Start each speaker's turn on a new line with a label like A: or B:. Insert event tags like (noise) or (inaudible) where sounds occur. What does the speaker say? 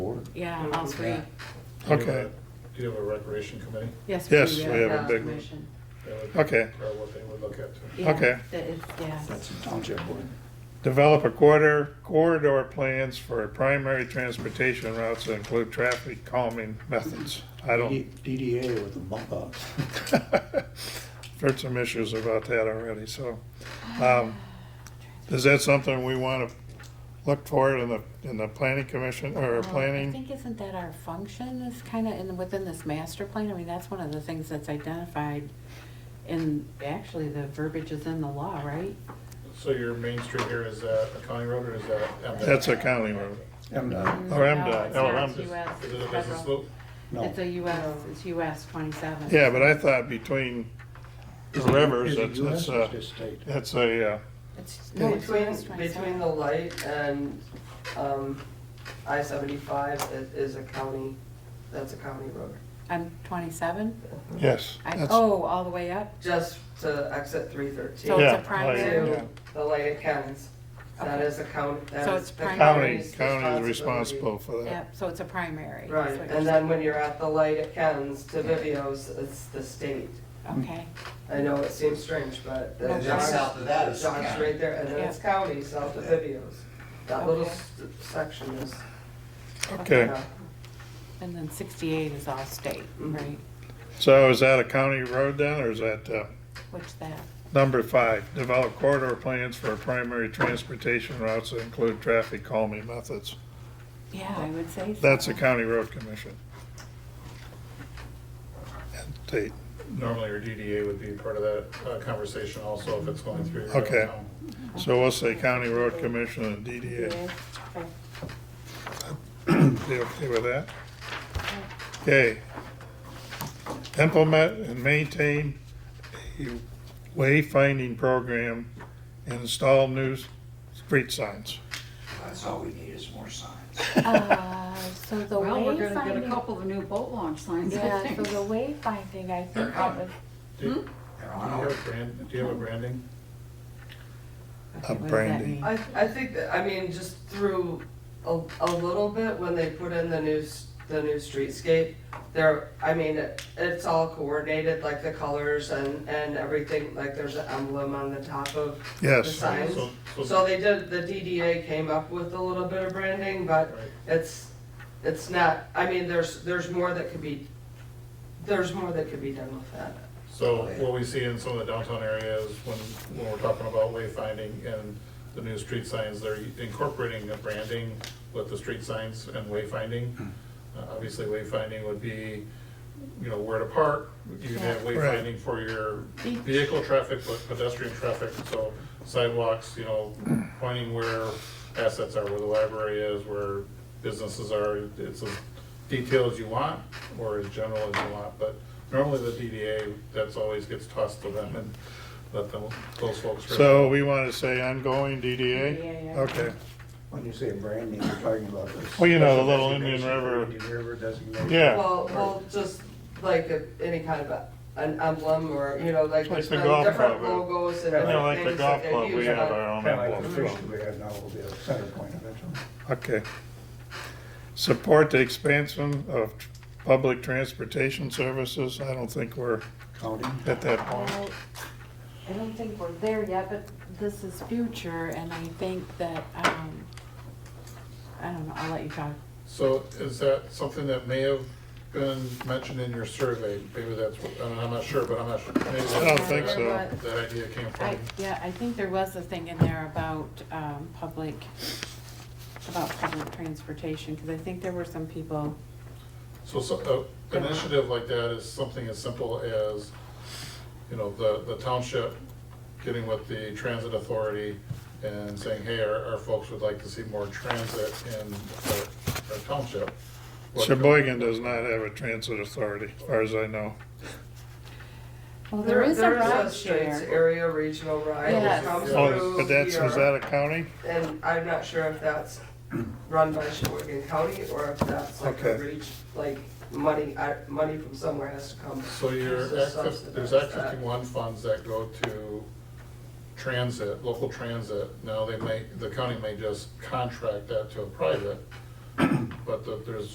A: Yeah, all three.
B: Do you have
C: Okay.
B: a- Do you have a recreation committee?
A: Yes.
C: Yes,
A: do.
C: we have a big-
A: Commission.
B: That would be
C: Okay,
B: Probably what they would look at too.
A: Yeah,
C: Okay.
A: that is- Yeah.
D: That's a township board.
C: develop a corridor, corridor plans for primary transportation routes that include traffic calming methods. I (laughs) don't,
D: DDA with the bump outs.
C: heard some issues about that already, so. um, Is that something we want to look for in the, in the planning commission or
A: Well, Uh, I
C: planning?
A: think isn't that our function is kind of in, within this master plan? I mean, that's one of the things that's identified in, actually, the verbiage is in the law, right?
B: So your main street here is uh, a county road or is that? M-Dot?
C: That's a county road.
D: MDOT,
C: Or
A: No,
C: MDOT.
A: it's
C: Oh,
A: not.
C: I'm
A: It's
C: just-
A: US
B: Is it a business
A: federal.
B: loop?
D: uh, no.
A: It's a US, it's US twenty-seven.
C: Yeah, but I thought between the
D: Is it-
C: rivers,
D: is it
C: that's, that's
D: US or is
C: a,
D: it state?
C: that's a, uh,
A: It's, no, it's
E: Between,
A: US
E: between the
A: twenty-seven.
E: light and, um, I seventy-five is a county, that's a county road.
A: On twenty-seven?
C: yes.
A: I,
C: that's-
A: oh, all the way up?
E: Just to exit three
A: So
E: thirteen
A: it's a
C: Yeah, like,
A: primary?
C: yeah.
E: to the light at Ken's. That
A: Okay.
E: is a county,
A: So
E: that
A: it's
E: is the
A: primary.
C: County,
E: county's responsibility.
C: county is responsible for that.
A: Yep, so it's a primary. is
E: Right,
A: what
E: and
A: you're
E: then when you're at the light at Ken's to Vivio's, it's the state.
A: saying. Okay,
E: I know it seems strange, but the
A: And
F: then
E: John's,
F: south of that is
E: John's
F: county.
E: right there, and then it's county, south of Vivio's. That little
A: Okay.
E: s- section is,
C: Okay,
E: yeah.
A: and then sixty-eight is all state,
E: Mhm.
A: right?
C: so is that a county road then, or is that, uh,
A: Which that,
C: number five? Develop corridor plans for primary transportation routes that include traffic calming methods.
A: yeah, I would say so.
C: That's a county road commission. And state,
B: Normally your DDA would be part of that uh, conversation also if it's going through. your
C: Okay.
B: town.
C: so we'll say county road commission and DDA.
A: Okay.
C: You okay with that? Okay. Implement and maintain a wayfinding program and install new street signs.
F: That's all we need is more signs.
A: Uh, So the
G: Well, we're gonna get a
A: wayfinding,
G: couple of new boat launch signs, I
A: yeah,
G: think.
A: so the wayfinding, I think that was.
B: Do
F: They're
B: do you
F: on
B: have
F: order.
B: a brand, do you have a branding?
A: okay, what does that
C: branding.
A: mean?
E: I, I think, that- I mean, just through a, a little bit, when they put in the new, s- the new streetscape, there, I mean, it, it's all coordinated, like the colors and, and everything, like there's an emblem on the top of the
C: Yes,
E: signs.
B: So- so-
E: So they did, the DDA came up with a little bit of branding, but
B: Right.
E: it's, it's not, I mean, there's, there's more that could be, there's more that could be done with that.
B: So what we see in some of the downtown areas when, when we're talking about wayfinding and the new street signs, they're incorporating the branding with the street signs and wayfinding. Uh, Obviously wayfinding would be, you know, where to park, you can have
C: Right.
B: wayfinding for your vehicle traffic, but pedestrian traffic, so sidewalks, you know, pointing where assets are, where the library is, where businesses are, it's as detailed as you want, or as general as you want, but normally the DDA, that's always gets tossed to them and let them, those folks.
C: so we want to say ongoing DDA?
A: DDA, yeah.
C: Okay,
D: When you say branding, you're talking about this.
C: Well, you know, the little Indian River.
D: Indian River designation.
C: Yeah.
E: Well, well, just like a- any kind of a- an emblem or, you know, like
C: Like
E: there's
C: the
E: been
C: golf
E: different
C: club.
E: logos and
D: Yeah,
C: kind of
E: different
C: like the
E: things
C: golf
E: that they
C: club, we
E: use.
C: have uh,
E: on-
C: our own
D: Kind of like the
C: emblem.
D: fish that we have now will be a center point of it.
C: Okay. Support the expansion of tr- public transportation services. I don't think we're
D: County.
C: at that point.
A: Well, I don't think we're there yet, but this is future, and I think that, um, I don't know, I'll let you talk.
B: So is that something that may have been mentioned in your survey? Maybe that's, I don't know, I'm not sure, but I'm not sure. Maybe that's
C: I don't think
B: where
C: so.
B: that- That idea came
A: I,
B: from.
A: yeah, I think there was a thing in there about, um, public, about public transportation, because I think there were some people,
B: So, so, uh, an initiative like that is something as simple as, you know, the, the township getting with the transit authority and saying, hey, our, our folks would like to see more transit in our- our township. What-
C: Sheboygan does not have a transit authority, as far as I know.
A: well, there is a ride
E: Straits
A: share.
E: Area Regional Ride
A: Yes.
E: that comes
C: Oh,
E: through
C: but that's, is
E: here,
C: that a county?
E: And I'm not sure if that's run by Sheboygan County or if that's like a
C: Okay.
E: reach, like money, I- money from somewhere has to come.
B: So your
E: to
B: Act fif-
E: subsidize
B: there's Act
E: that.
B: fifty-one funds that go to transit, local transit. Now they may, the county may just contract that to a private, but the- there's